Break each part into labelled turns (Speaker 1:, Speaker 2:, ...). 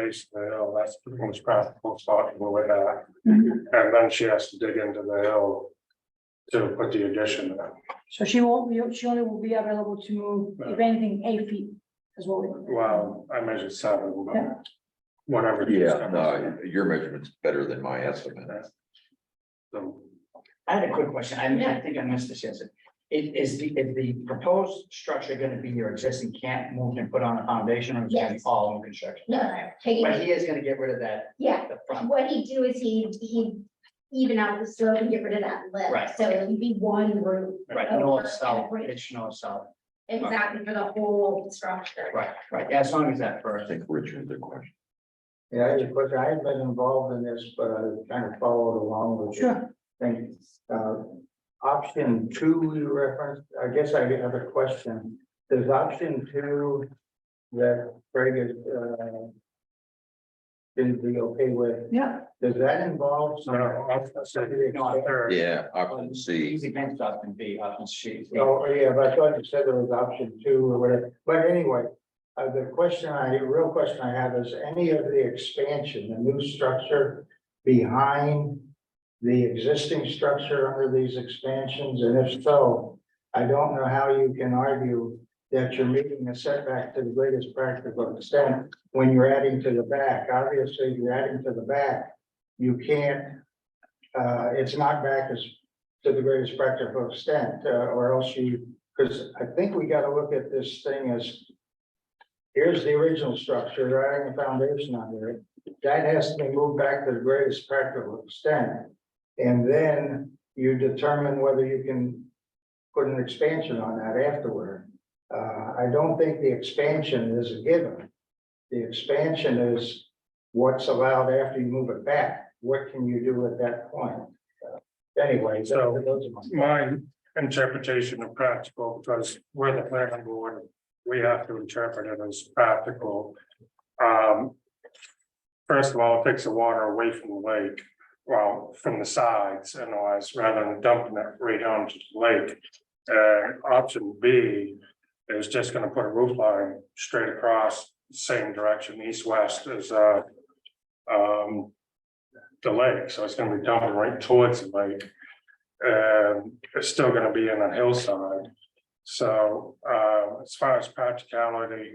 Speaker 1: basically, oh, that's the most practical starting with that. And then she has to dig into the hill to put the addition in.
Speaker 2: So she won't, be- she only will be available to move, if anything, eight feet as well.
Speaker 1: Well, I measured seven,
Speaker 2: Yeah.
Speaker 1: but whatever.
Speaker 3: Yeah, no, your measurement's better than my estimate.
Speaker 1: So,
Speaker 4: I had a quick question. I I think I missed this answer. Is, is the, is the proposed structure gonna be your existing camp moved and put on a foundation or is it gonna be
Speaker 5: Yes.
Speaker 4: all new construction?
Speaker 5: No, no, taking
Speaker 4: But
Speaker 5: it,
Speaker 4: he is gonna get rid of that,
Speaker 5: yeah,
Speaker 4: the front.
Speaker 5: what he'd do is he, he'd even out the slope and get rid of that lip,
Speaker 4: Right.
Speaker 5: so it'd be one roof.
Speaker 4: Right, north, south, pitch north, south.
Speaker 5: Exactly, for the whole structure.
Speaker 4: Right, right, as long as that
Speaker 3: I
Speaker 4: first.
Speaker 3: think Richard, the question.
Speaker 6: Yeah, I had a question. I had been involved in this, but I kind of followed along with.
Speaker 2: Sure.
Speaker 6: Thank Uh, option two you referenced, I guess I have a question. Does option two that Greg is, uh, is be okay with,
Speaker 2: Yeah,
Speaker 6: does that involve
Speaker 1: so
Speaker 6: some?
Speaker 1: I'll say the third.
Speaker 3: Yeah, option C.
Speaker 4: Easy fence option B, option C.
Speaker 6: Oh, yeah, but I thought you said there was option two or whatever, but anyway. Uh, the question I, real question I have is any of the expansion, the new structure behind. The existing structure under these expansions, and if so, I don't know how you can argue. That you're meeting the setback to the greatest practical extent when you're adding to the back, obviously, if you're adding to the back. You can't, uh, it's not back as to the greatest practical extent, uh, or else you, because I think we gotta look at this thing as. Here's the original structure, You're adding a foundation under it, that has to be moved back to the greatest practical extent. And then you determine whether you can put an expansion on that afterward. Uh, I don't think the expansion is a given. The expansion is what's allowed after you move it back, what can you do at that point? Anyway, so those are my.
Speaker 1: My interpretation of practical, because we're the planning board, we have to interpret it as practical. Um. First of all, it takes the water away from the lake, well, from the sides and all that, rather than dumping it right onto the lake. And option B is just gonna put a roof line straight across, same direction, east-west as, uh. Um. The lake, so it's gonna be dumping right towards the lake. Um, it's still gonna be in a hillside. So, uh, as far as practicality,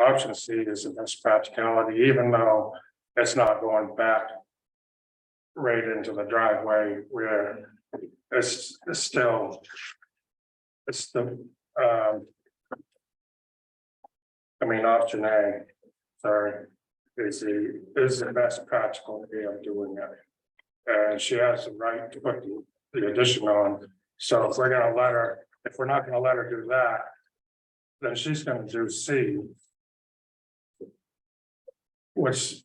Speaker 1: option C is the best practicality, even though it's not going back. Right into the driveway where it's, it's still. It's the, um. I mean, option A, sorry, is the, is the best practical way of doing it. And she has the right to put the the addition on. So if we're gonna let her, if we're not gonna let her do that. Then she's gonna do C. Which.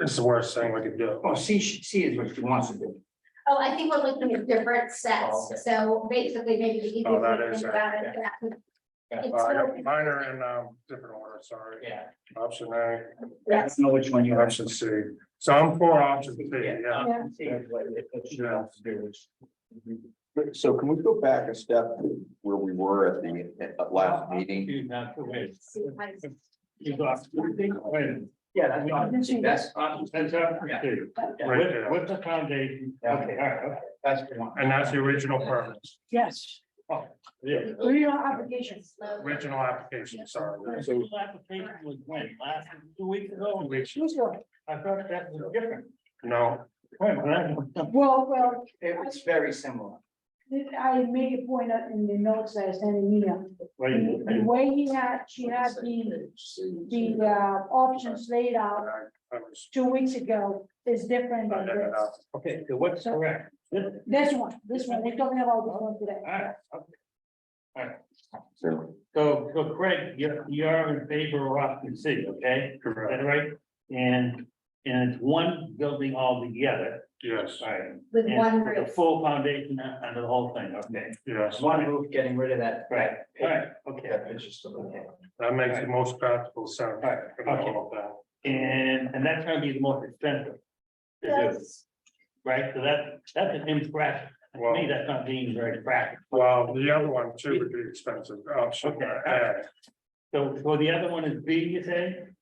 Speaker 1: Is the worst thing we could do.
Speaker 4: Well, Oh, C, C is what she wants to do.
Speaker 5: Oh, I think we're looking at different
Speaker 4: Oh, okay.
Speaker 5: sets, so basically maybe the easiest
Speaker 1: Oh,
Speaker 5: way
Speaker 1: that
Speaker 5: to
Speaker 1: is
Speaker 5: think
Speaker 1: right,
Speaker 5: about it.
Speaker 4: yeah.
Speaker 5: that would-
Speaker 4: Yeah.
Speaker 5: It's
Speaker 1: Uh,
Speaker 5: so-
Speaker 1: Mine are in um different order, sorry.
Speaker 4: Yeah.
Speaker 1: Option A,
Speaker 4: I don't know which one you are.
Speaker 1: option C. So I'm for option C, yeah.
Speaker 4: option C is what it- what she wants to do, which-
Speaker 3: So can we go back a step where we were at the at last meeting?
Speaker 5: see if I-
Speaker 4: Yeah, that's option, that's option,
Speaker 7: That's
Speaker 4: Yeah.
Speaker 7: option two.
Speaker 1: Right there.
Speaker 7: With, with the foundation.
Speaker 4: Yeah.
Speaker 7: Okay, all right, okay.
Speaker 4: that's the one.
Speaker 1: And that's the original permit,
Speaker 2: yes,
Speaker 7: Yeah.
Speaker 2: real applications.
Speaker 1: original application, sorry.
Speaker 7: Full application was when, last, two weeks ago,
Speaker 1: Which-
Speaker 7: I thought that was different.
Speaker 1: No,
Speaker 7: Wait, when I-
Speaker 2: Well, well,
Speaker 4: It was very similar.
Speaker 2: I made a point out in the notes that I sent in email. The the
Speaker 7: wait,
Speaker 2: way he had, she had the, the uh, options laid out
Speaker 1: I was.
Speaker 2: two weeks ago is different
Speaker 1: I
Speaker 2: than
Speaker 1: ended
Speaker 2: this.
Speaker 1: up-
Speaker 7: Okay, so what's correct? This-
Speaker 2: This one, this one, we're talking about this one today.
Speaker 7: all right, okay.
Speaker 3: So
Speaker 7: So, so Craig, you're, you're in favor of option C, okay? Is
Speaker 1: Correct,
Speaker 7: that right? And, and it's one building altogether,
Speaker 1: yes,
Speaker 7: all right?
Speaker 5: With
Speaker 7: and
Speaker 5: one
Speaker 7: with a
Speaker 5: roof.
Speaker 7: Full foundation under the whole thing, okay?
Speaker 1: yes.
Speaker 4: One roof getting rid of that.
Speaker 7: Right, all right,
Speaker 4: Yeah,
Speaker 7: okay.
Speaker 4: it's just a little-
Speaker 1: That makes the most practical sense.
Speaker 7: Right,
Speaker 1: in all of that.
Speaker 7: And, and that's gonna be the most expensive. to do, Right, so that, that's an impractical, to me,
Speaker 1: Well,
Speaker 7: that's not being very practical.
Speaker 1: well, the other one too would be expensive, option
Speaker 7: Okay.
Speaker 1: A,
Speaker 7: So, so the other one is B, you say?